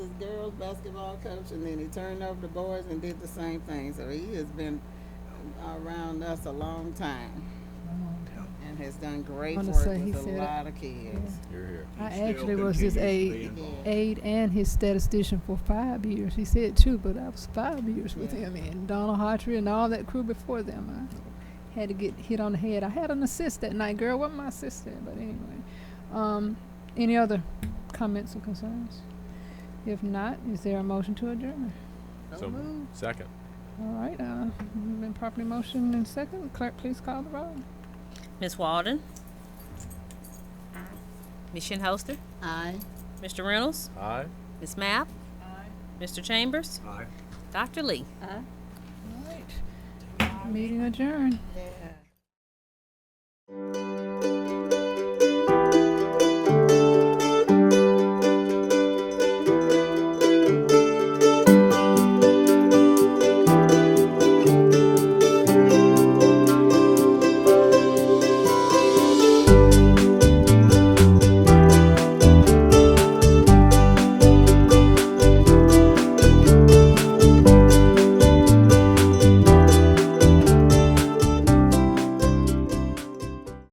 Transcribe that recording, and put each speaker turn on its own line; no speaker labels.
girls' basketball coach, and then he turned over to boys and did the same thing. So he has been around us a long time and has done great
Wanna
work
say he
with a
said it.
lot of kids.
You're here.
I
Still
actually was his
continues to be
aide,
involved.
aide and his statistician for five years. He said two, but I was five years with
Yeah.
him and Donald Hartree and all that crew before them. I had to get hit on the head. I had an assist that night, girl. Wasn't my assist there, but anyway. Um, any other comments or concerns? If not, is there a motion to adjourn?
So
So moved.
Second.
All right, uh, we've been properly motioned and second. Clerk, please call the roll.
Ms. Walden? Ms. Shinholster?
Aye.
Mr. Reynolds?
Aye.
Ms. Mapp? Mr. Chambers?
Aye.
Dr. Lee?
All right. Meeting adjourned.
Yeah.